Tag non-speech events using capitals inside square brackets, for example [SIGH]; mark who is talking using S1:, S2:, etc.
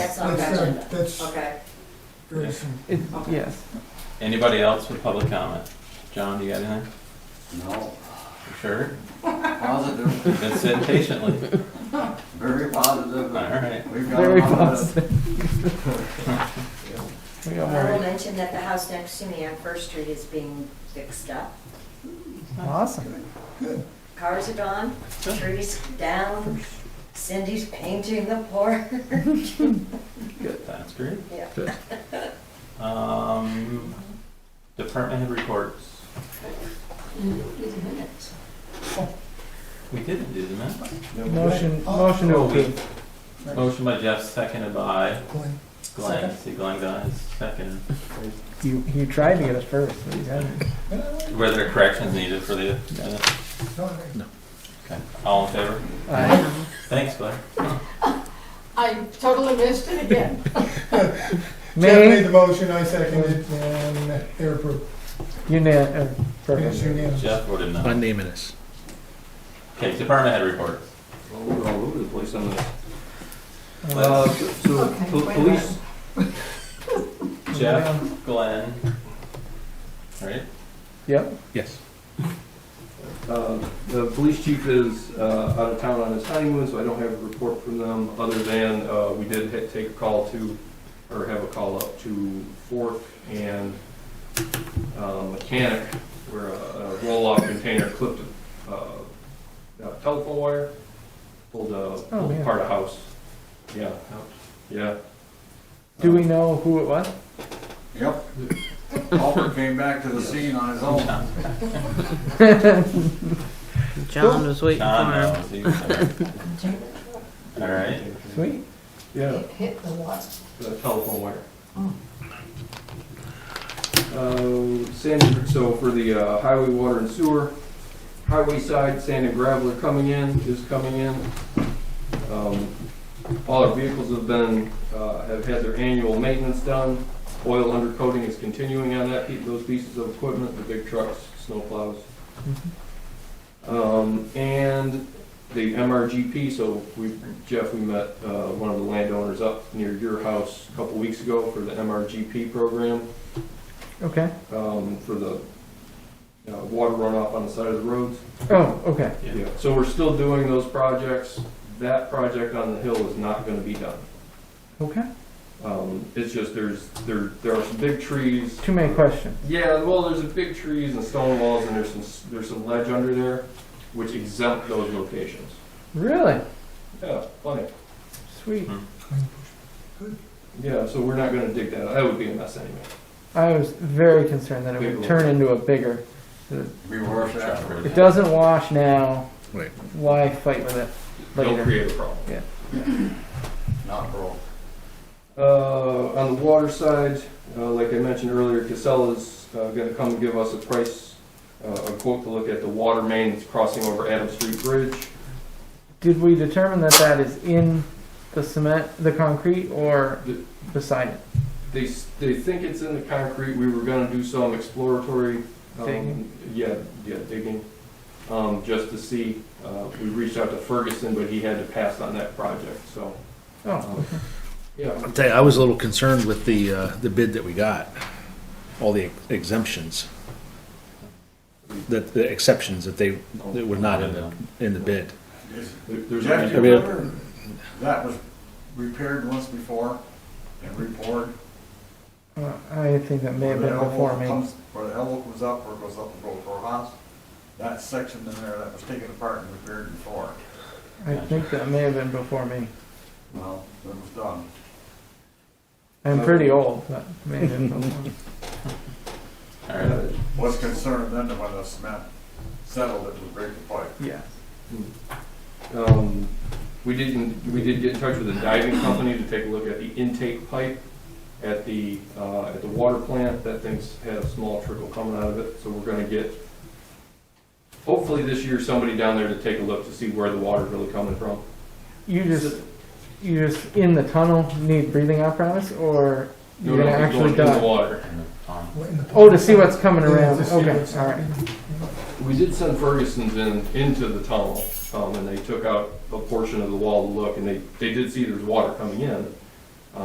S1: that's on the
S2: That's, uh,
S1: agenda.
S2: That's
S3: Okay,
S2: very soon.
S4: It,
S3: Okay.
S4: yes.
S5: Anybody else with public comment? John, do you got anything?
S6: No,
S5: You Sure?
S6: positive,
S5: You've been sitting patiently.
S6: very positive.
S5: All right.
S6: We've got
S4: Very
S6: a lot of-
S4: positive. We got
S1: I will
S4: worried.
S1: mention that the house next to me on First Street is being fixed up.
S4: Awesome.
S1: Cars are gone, trees down, Cindy's painting the porch.
S5: That's great.
S1: Yeah.
S4: Good.
S5: Um, department head reports. We didn't do the minutes.
S4: Motion, motion to
S5: Oh, we-
S4: approve.
S5: Motion by Jeff, seconded by
S2: Glenn,
S5: Glenn. See, Glenn got his second.
S4: You, you tried to get us first, but you got
S5: Were there corrections needed for the minutes?
S2: no, I-
S5: All in favor?
S4: it.
S5: Thanks, Glenn.
S3: I totally missed it again.
S2: Jeff made
S4: May,
S2: the motion, I seconded it, and they're approved.
S4: unia, uh,
S2: It's
S4: perfect.
S2: unanimous.
S5: Jeff voted no.
S7: Unanimous.
S5: Okay, department head reports.
S8: Well, we're all over the place on this.
S5: Let's-
S8: Uh, so,
S3: Okay,
S8: po-
S3: wait a
S8: police,
S5: [LAUGHS] Jeff, Glenn. Right?
S4: Yep,
S7: Yes.
S8: uh, the police chief is, uh, out of town on his honeymoon, so I don't have a report from them, other than, uh, we did ha- take a call to, or have a call up to Fork and, uh, Mechanic, where a, a roll-off container clipped, uh, a telephone wire, pulled a, pulled
S4: Oh, man.
S8: apart a house. Yeah, yeah. Uh,
S4: do we know who it was?
S6: Yep. Alfred came back to the scene on his own.
S4: John
S7: was waiting
S5: John knows. He's- All right.
S4: Sweet,
S8: Yeah.
S3: Hit the what?
S8: the telephone wire. Um, Sand, so for the uh, highway, water and sewer, highway side, sand and gravel are coming in, is coming in. Um, All our vehicles have been, uh, have had their annual maintenance done. Oil undercoating is continuing on that, pe- those pieces of equipment, the big trucks, snowplows.
S4: Mm-hmm.
S8: Um, And the MRGP, so we, Jeff, we met uh, one of the landowners up near your house a couple weeks ago for the MRGP program,
S4: okay.
S8: um, for the uh, water runoff on the side of the roads.
S4: Oh, okay,
S5: Yeah.
S8: Yeah, So we're still doing those projects. That project on the hill is not gonna be done.
S4: okay.
S8: Um, It's just there's, there, there are some big trees.
S4: Too many questions.
S8: Yeah, well, there's a big trees and stone walls and there's some, s- there's some ledge under there, which exempt those locations.
S4: Really?
S8: Yeah, funny.
S4: Sweet.
S8: Yeah, so we're not gonna dig that. That would be a mess anyway.
S4: I was very concerned that it would
S8: Big
S4: turn into a bigger.
S6: We were after.
S4: It doesn't wash now.
S7: Right.
S4: Why fight with it
S8: They'll
S4: later?
S8: create a problem.
S6: not broke.
S8: Uh, on the water side, uh, like I mentioned earlier, Casella's, uh, gonna come and give us a price, uh, a quote to look at the water main that's crossing over Adams Street Bridge.
S4: Did we determine that that is in the cement, the concrete, or
S8: The-
S4: beside it?
S8: They, s- they think it's in the concrete, we were gonna do some exploratory, um,
S4: Digging?
S8: yeah, yeah, digging, um, just to see. Uh, we reached out to Ferguson, but he had to pass on that project, so,
S2: Uh,
S4: Oh,
S8: um, yeah,
S7: I'll tell you, I was a little concerned with the, uh, the bid that we got, all the exemptions. That, the exceptions that they, that were not in the, in the bid.
S8: there- there's.
S6: Jeff, do you
S7: I mean-
S6: remember that was repaired once before and repoured?
S4: well, I think that may have been before me.
S6: Where the elbow comes up or goes up and goes for a house, that section in there that was taken apart and repaired before,
S4: I think that may have been before me.
S6: well, that was done.
S4: I'm pretty
S2: Uh,
S4: old, but may have been
S2: [LAUGHS]
S4: before. me.
S5: All right.
S8: uh,
S6: Was concerned then that when the cement settled, it would break the pipe.
S4: Yeah.
S8: Um, we didn't, we did get in touch with a diving company to take a look at the intake pipe at the, uh, at the water plant. That thing's had a small trickle coming out of it, so we're gonna get, hopefully this year, somebody down there to take a look to see where the water's really coming from.
S4: You just, you just in the tunnel need breathing apparatus, or
S8: No,
S4: you're
S8: no,
S4: gonna
S8: it's
S4: actually
S8: going in the
S4: die?
S8: water.
S5: Um,
S2: Wait in the-
S4: Oh, to see what's coming
S2: Yeah,
S4: around.
S2: to see
S4: Okay,
S2: what's
S4: all right.
S2: happening.
S8: We did send Ferguson's in, into the tunnel, um, and they took out a portion of the wall to look, and they, they did see there's water coming in.